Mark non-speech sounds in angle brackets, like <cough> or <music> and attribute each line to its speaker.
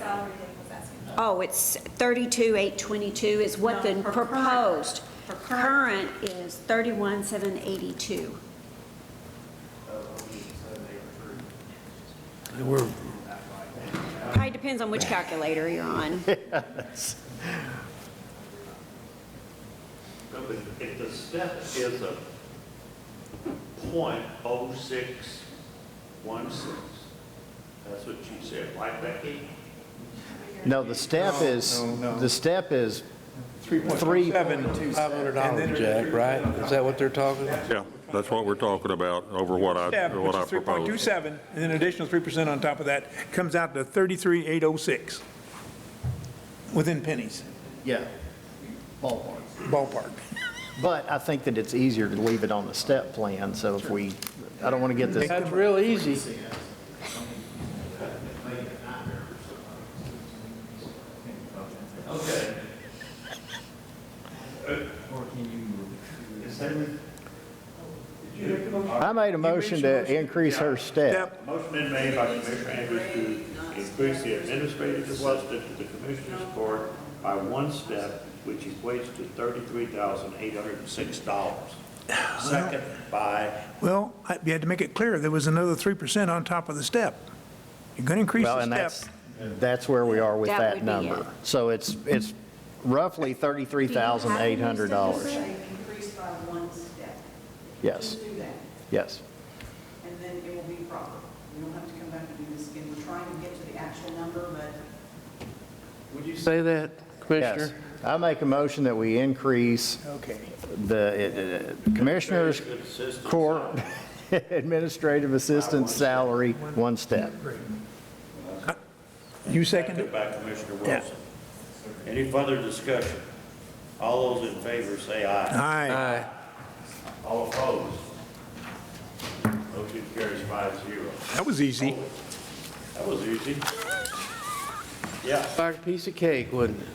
Speaker 1: Oh, it's 32,822 is what the
Speaker 2: No, for current.
Speaker 1: proposed.
Speaker 2: For current.
Speaker 1: Current is 31,782.
Speaker 3: We're,
Speaker 1: Probably depends on which calculator you're on.
Speaker 4: No, but if the step is a point oh six one six, that's what you said, right, Becky?
Speaker 5: No, the step is,
Speaker 6: no, no.
Speaker 5: the step is,
Speaker 6: Three point two
Speaker 3: five hundred
Speaker 6: seven.
Speaker 3: dollars, Jack, right? Is that what they're talking about?
Speaker 7: Yeah, that's what we're talking about over what I,
Speaker 6: Step,
Speaker 7: what
Speaker 6: which
Speaker 7: I
Speaker 6: is three point two
Speaker 7: proposed.
Speaker 6: seven, and then additional three percent on top of that, comes out to thirty-three eight oh six. Within pennies,
Speaker 5: yeah, ballpark.
Speaker 6: ballpark.
Speaker 5: But I think that it's easier to leave it on the step plan, so if we, I don't want to get this,
Speaker 3: That's real easy.
Speaker 4: Okay.
Speaker 5: I made a motion to increase her step.
Speaker 6: Step,
Speaker 4: Motion been made by Commissioner Andrews to increase the administrative assistant to the Commissioners Court by one step, which equates to thirty-three thousand eight hundred and six dollars. Second by,
Speaker 6: well, I- you had to make it clear, there was another three percent on top of the step. You're gonna increase
Speaker 5: Well,
Speaker 6: the
Speaker 5: and
Speaker 6: step.
Speaker 5: that's, that's where we are with
Speaker 1: That would
Speaker 5: that
Speaker 1: be
Speaker 5: number. So it's, it's roughly $33,800.
Speaker 2: Increased by one step.
Speaker 5: Yes,
Speaker 2: Just do that,
Speaker 5: yes.
Speaker 2: and then it will be proper. We don't have to come back and do this again. We're trying to get to the actual number, but
Speaker 3: Would you say that, Commissioner?
Speaker 5: Yes. I make a motion that we increase
Speaker 6: Okay.
Speaker 5: the uh, Commissioners Court <laughs> Administrative Assistant salary one step.
Speaker 6: You second it?
Speaker 4: seconded by Commissioner
Speaker 6: Yeah.
Speaker 4: Wilson. Any further discussion? All those in favor say aye.
Speaker 6: Aye.
Speaker 3: Aye.
Speaker 4: All opposed? Motion carries five zero.
Speaker 6: That was easy.
Speaker 4: That was easy. Yeah.
Speaker 3: Like a piece of cake, wouldn't it?